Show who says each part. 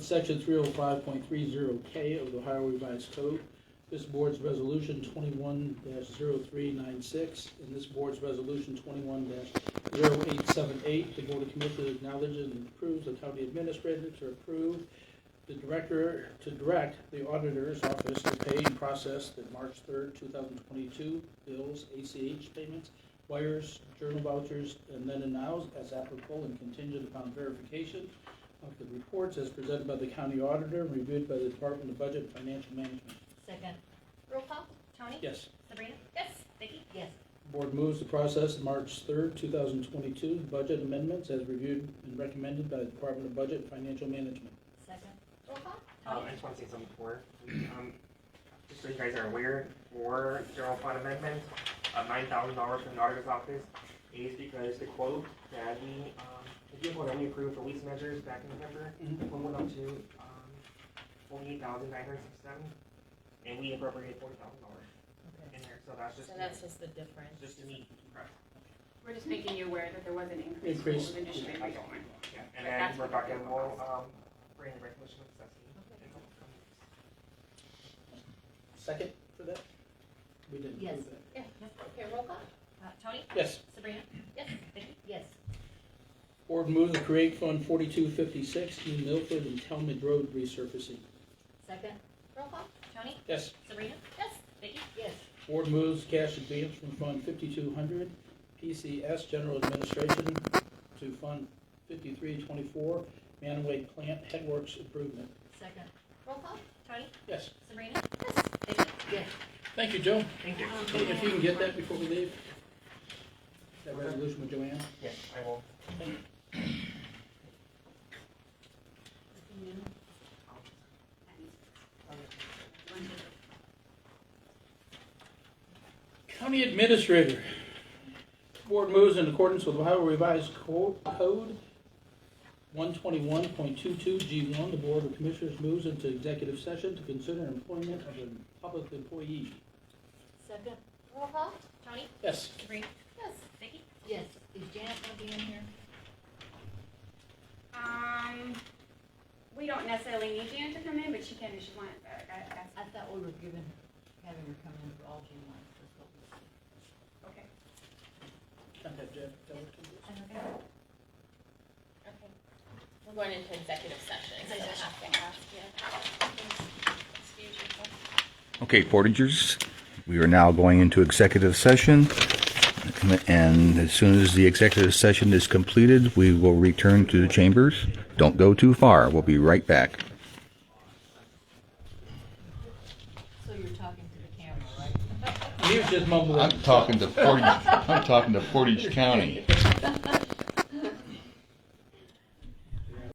Speaker 1: section three oh five point three zero K of the Ohio Revised Code. This board's resolution twenty-one 396 and this board's resolution twenty-one 878 The Board of Commissioners acknowledges and approves the county administrator to approve the director, to direct the auditor's office to pay and process the March third, two thousand twenty-two bills, ACH payments, wires, journal vouchers, and then and nows as applicable and contingent upon verification of the reports as presented by the county auditor and reviewed by the Department of Budget and Financial Management.
Speaker 2: Second.
Speaker 3: Roll call, Tony?
Speaker 1: Yes.
Speaker 3: Sabrina?
Speaker 2: Yes.
Speaker 3: Vicky? Yes.
Speaker 1: Board moves to process the March third, two thousand twenty-two budget amendments as reviewed and recommended by the Department of Budget and Financial Management.
Speaker 3: Second. Roll call,
Speaker 4: Um,
Speaker 3: Tony?
Speaker 4: I just want to say something before. Um, just so you guys are aware, for general fund amendment, uh, nine thousand dollars from the auditor's office is because the quote that we, um, the vehicle that we approved for lease measures back in November, the quote went up to, um, forty-eight thousand nine hundred sixty-seven, and we appropriated forty thousand dollars
Speaker 2: Okay.
Speaker 4: in there, so that's just,
Speaker 2: So that's just the difference.
Speaker 4: just to meet, correct.
Speaker 5: We're just making you aware that there was an increase. in
Speaker 1: Increase.
Speaker 5: the Industry.
Speaker 4: I don't mind. Yeah, and
Speaker 5: That's
Speaker 4: then we're
Speaker 5: what we're
Speaker 4: talking,
Speaker 5: doing.
Speaker 4: we'll, um, bring the resolution of necessity.
Speaker 2: Okay.
Speaker 4: in the upcoming weeks.
Speaker 1: Second for that? We didn't
Speaker 2: Yes.
Speaker 1: approve that.
Speaker 3: Yeah. Okay, roll call,
Speaker 2: Uh, Tony?
Speaker 1: Yes.
Speaker 3: Sabrina? Yes. Vicky?
Speaker 2: Yes.
Speaker 1: Board moves to create Fund forty-two fifty-six, New Milford and Talmud Road resurfacing.
Speaker 2: Second.
Speaker 3: Roll call, Tony?
Speaker 1: Yes.
Speaker 3: Sabrina? Yes. Vicky?
Speaker 2: Yes.
Speaker 1: Board moves cash advance from Fund 5200, PCS General Administration to Fund 5324, Manaway Plant Headworks Improvement.
Speaker 2: Second.
Speaker 3: Roll call, Tony?
Speaker 1: Yes,
Speaker 3: Sabrina? Yes. Vicky?
Speaker 2: Yes.
Speaker 1: thank you, Joe.
Speaker 4: Thank you.
Speaker 2: Um,
Speaker 1: Hey, If you can get that before we leave, that resolution with Joanne.
Speaker 4: Yes, I will.
Speaker 1: County Administrator. Board moves in accordance with Ohio Revised Co- Code 121.22G1. The Board of Commissioners moves into executive session to consider employment of a public employee.
Speaker 2: Second.
Speaker 3: Roll call, Tony?
Speaker 1: Yes.
Speaker 3: Sabrina? Yes. Vicky?
Speaker 2: Yes. Is Janet gonna be in here?
Speaker 5: Um, we don't necessarily need Jan to come in, but she can if she wants, but that, that's,
Speaker 2: I thought we were giving, having her come in for all June ones. That's what we said.
Speaker 5: okay.
Speaker 1: Contact Jeff, tell her to do it.
Speaker 6: Okay. We're going into executive session, so I have to ask you. Excuse yourself.
Speaker 7: Okay, Portagers, we are now going into executive session. And as soon as the executive session is completed, we will return to the chambers. Don't go too far. We'll be right back.
Speaker 2: So you're talking to the camera, right?
Speaker 1: He was just mumbling.
Speaker 8: I'm talking to Portage, I'm talking to Portage County.